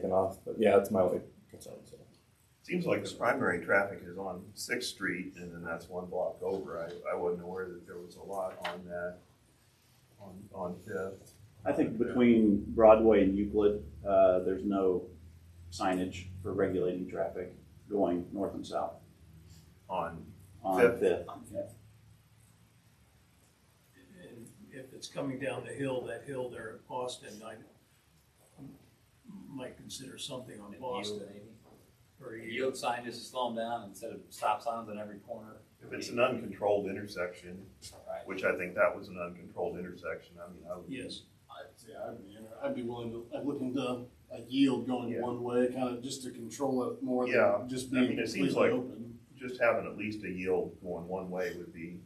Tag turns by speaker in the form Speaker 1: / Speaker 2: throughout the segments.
Speaker 1: taken off, but yeah, it's mileage concern. So.
Speaker 2: Seems like the primary traffic is on Sixth Street, and then that's one block over. I, I wasn't aware that there was a lot on that, on, on Fifth.
Speaker 3: I think between Broadway and Euclid, uh, there's no signage for regulating traffic going north and south
Speaker 2: On,
Speaker 3: on
Speaker 2: Fifth.
Speaker 3: Fifth. Yeah.
Speaker 4: And if it's coming down the hill, that hill there at Boston, I might consider something on Boston. Or
Speaker 5: The
Speaker 4: you,
Speaker 5: yield sign just to slow them down instead of stop signs on every corner.
Speaker 2: if it's an uncontrolled intersection,
Speaker 5: Right.
Speaker 2: which I think that was an uncontrolled intersection, I mean, I would.
Speaker 4: yes,
Speaker 6: I'd say I'd be, inter- I'd be willing to, I'd look into a yield going
Speaker 2: Yeah.
Speaker 6: one way, kind of just to control it more
Speaker 2: Yeah.
Speaker 6: than just
Speaker 2: I
Speaker 6: being
Speaker 2: mean, it seems
Speaker 6: completely
Speaker 2: like-
Speaker 6: open.
Speaker 2: Just having at least a yield going one way would be,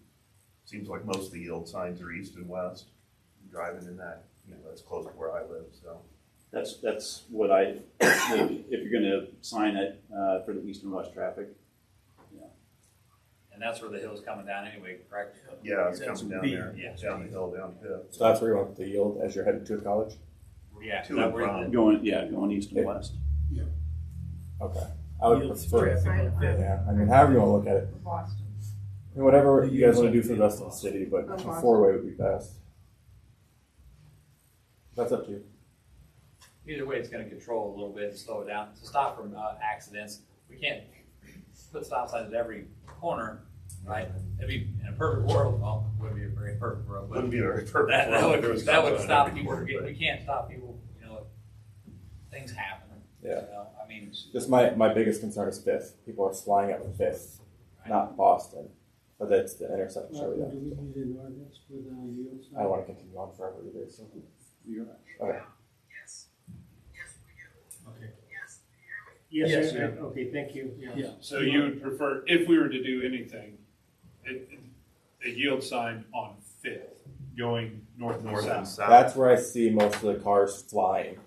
Speaker 2: seems like most of the yield signs are east and west, driving in that, you know, that's close to where I live, so.
Speaker 3: That's, that's what I, if you're gonna sign it, uh, for the east and west traffic,
Speaker 5: And that's where the hill's coming down anyway, correct?
Speaker 2: Yeah, it's
Speaker 4: That's
Speaker 2: coming down
Speaker 4: B,
Speaker 2: there,
Speaker 5: yeah.
Speaker 2: down the hill, down Fifth.
Speaker 1: so that's where you want the yield as you're headed to college.
Speaker 5: Yeah.
Speaker 2: To
Speaker 5: that
Speaker 2: and
Speaker 5: where the-
Speaker 2: from.
Speaker 3: going, yeah, going east and west.
Speaker 1: Okay, I would
Speaker 4: Yield's
Speaker 1: prefer.
Speaker 4: traffic on Fifth.
Speaker 1: Yeah, I mean, however you want to look at it,
Speaker 7: Boston.
Speaker 1: I mean, whatever
Speaker 4: The
Speaker 1: you guys
Speaker 4: yield
Speaker 1: want to do
Speaker 4: sign
Speaker 1: for the
Speaker 4: is
Speaker 1: rest of the
Speaker 4: awesome.
Speaker 1: city, but
Speaker 7: That's
Speaker 1: a
Speaker 7: awesome.
Speaker 1: four way would be best. That's up to you.
Speaker 5: Either way, it's gonna control a little bit and slow it down, to stop from, uh, accidents. We can't put stop signs at every corner, right? It'd be, in a perfect world, well, wouldn't be a very perfect world, but
Speaker 2: Wouldn't be very perfect.
Speaker 5: that,
Speaker 2: world
Speaker 5: that
Speaker 2: if there
Speaker 5: would,
Speaker 2: was
Speaker 5: that would
Speaker 2: something
Speaker 5: stop
Speaker 2: every
Speaker 5: people,
Speaker 2: corner,
Speaker 5: from getting-
Speaker 2: but-
Speaker 5: we can't stop people, you know, things happen. you
Speaker 1: Yeah.
Speaker 5: know? I mean.
Speaker 1: Just my, my biggest concern is Fifth. People are flying up Fifth, not Boston, but that's the intersection. over there.
Speaker 8: Uh, we need an ordinance with a yield
Speaker 1: I don't want to continue on forever either. So.
Speaker 3: You're
Speaker 1: Okay.
Speaker 8: Okay.
Speaker 4: Yes,
Speaker 8: Yes,
Speaker 4: sir.
Speaker 8: sir. okay, thank you, yeah.
Speaker 4: Yeah.
Speaker 9: So you would prefer, if we were to do anything, it, a yield sign on Fifth, going north and
Speaker 2: North and
Speaker 9: south.
Speaker 2: south.
Speaker 1: That's where I see most of the cars flying.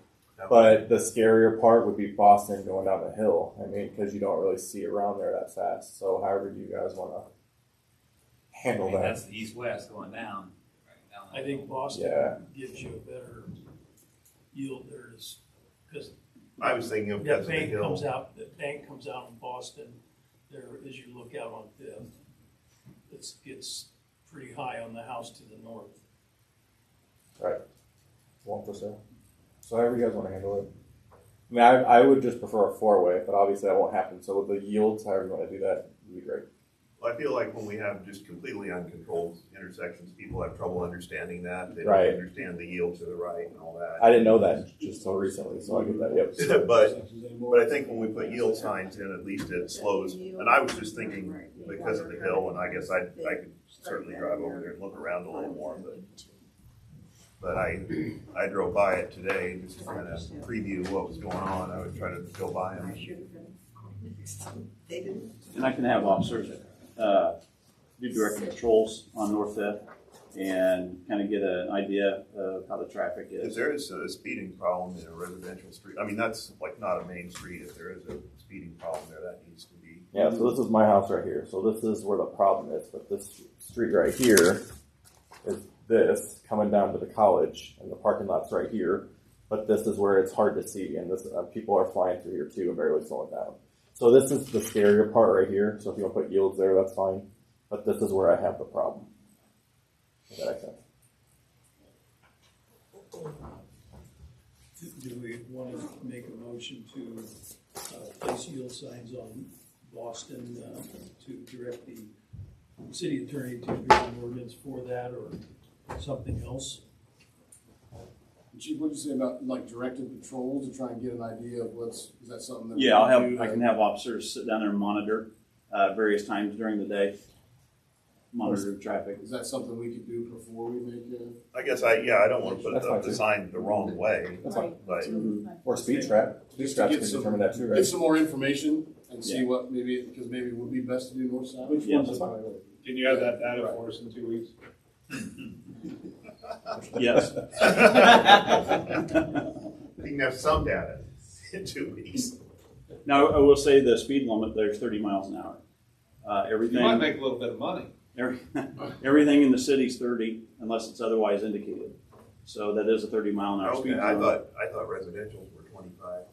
Speaker 1: But the scarier part would be Boston going down the hill. I mean, because you don't really see around there that fast. So, however, you guys want to
Speaker 5: I
Speaker 1: handle
Speaker 5: mean,
Speaker 1: that?
Speaker 5: that's the east-west going down. right, down
Speaker 4: I
Speaker 5: that
Speaker 4: think
Speaker 5: hill.
Speaker 1: Yeah.
Speaker 4: Boston gives you a better yield there is, because
Speaker 2: I was thinking of because
Speaker 4: that
Speaker 2: of the
Speaker 4: bank comes
Speaker 2: hill.
Speaker 4: out, that bank comes out in Boston, there as you look out on Fifth. It's, it's pretty high on the house to the north.
Speaker 1: One percent. So however you guys want to handle it. I mean, I, I would just prefer a four way, but obviously that won't happen. So with the yields, however you want to do that, would be great.
Speaker 2: I feel like when we have just completely uncontrolled intersections, people have trouble understanding that. They
Speaker 1: Right.
Speaker 2: don't understand the yield to the right and all
Speaker 1: I
Speaker 2: that.
Speaker 1: didn't know that just so recently, so I get that. Yep.
Speaker 2: But, but I think when we put yield signs in, at least it slows. And I was just thinking because of the hill, and I guess I, I could certainly drive over there and look around a little more, but, but I, I drove by it today just to kind of preview what was going on. I was trying to go by them.
Speaker 7: They didn't.
Speaker 3: And I can have officers, uh, do direct patrols on North Fifth and kind of get an idea of how the traffic
Speaker 2: If
Speaker 3: is.
Speaker 2: there is a speeding problem in a residential street, I mean, that's like not a main street, if there is a speeding problem there, that needs to be.
Speaker 1: Yeah, so this is my house right here. So this is where the problem is. But this street right here is this coming down to the college, and the parking lot's right here. But this is where it's hard to see, and this uh, people are flying through here too and barely slowing down. So this is the scarier part right here. So if you want to put yields there, that's fine. But this is where I have the problem. If that makes sense.
Speaker 4: Do we want to make a motion to uh, place yield signs on Boston uh, to direct the city attorney to draw an ordinance for that or something else?
Speaker 6: Chief, what'd you say about like directed patrol to try and get an idea of what's, is that something that? we
Speaker 3: Yeah, I'll
Speaker 6: do
Speaker 3: have, I
Speaker 6: to-
Speaker 3: can have officers sit down there and monitor, uh, various times during the day. Monitor traffic.
Speaker 6: Is that something we could do before we make it?
Speaker 2: I guess I, yeah, I don't wanna put
Speaker 1: That's
Speaker 2: up
Speaker 1: fine,
Speaker 2: the
Speaker 1: too.
Speaker 2: sign the wrong way,
Speaker 1: That's fine.
Speaker 2: but
Speaker 1: Or speed trap. Speed
Speaker 6: Just to
Speaker 1: traps
Speaker 6: get
Speaker 1: can
Speaker 6: some-
Speaker 1: determine that too, right?
Speaker 6: Get some more information and see
Speaker 3: Yeah.
Speaker 6: what maybe, because maybe it would be best to do north side.
Speaker 1: Which
Speaker 3: Yeah,
Speaker 1: one's
Speaker 3: that's
Speaker 1: fine.
Speaker 9: Can you have that data for us in two weeks?
Speaker 3: Yes.
Speaker 2: we can have some data in two weeks.
Speaker 3: Now, I will say the speed limit there is thirty miles an hour. Uh,
Speaker 9: You might
Speaker 3: everything,
Speaker 9: make a little bit of money.
Speaker 3: every- everything in the city's thirty unless it's otherwise indicated. So that is a thirty mile an hour speed
Speaker 2: Okay, I
Speaker 3: limit.
Speaker 2: thought, I thought residential's were twenty-five.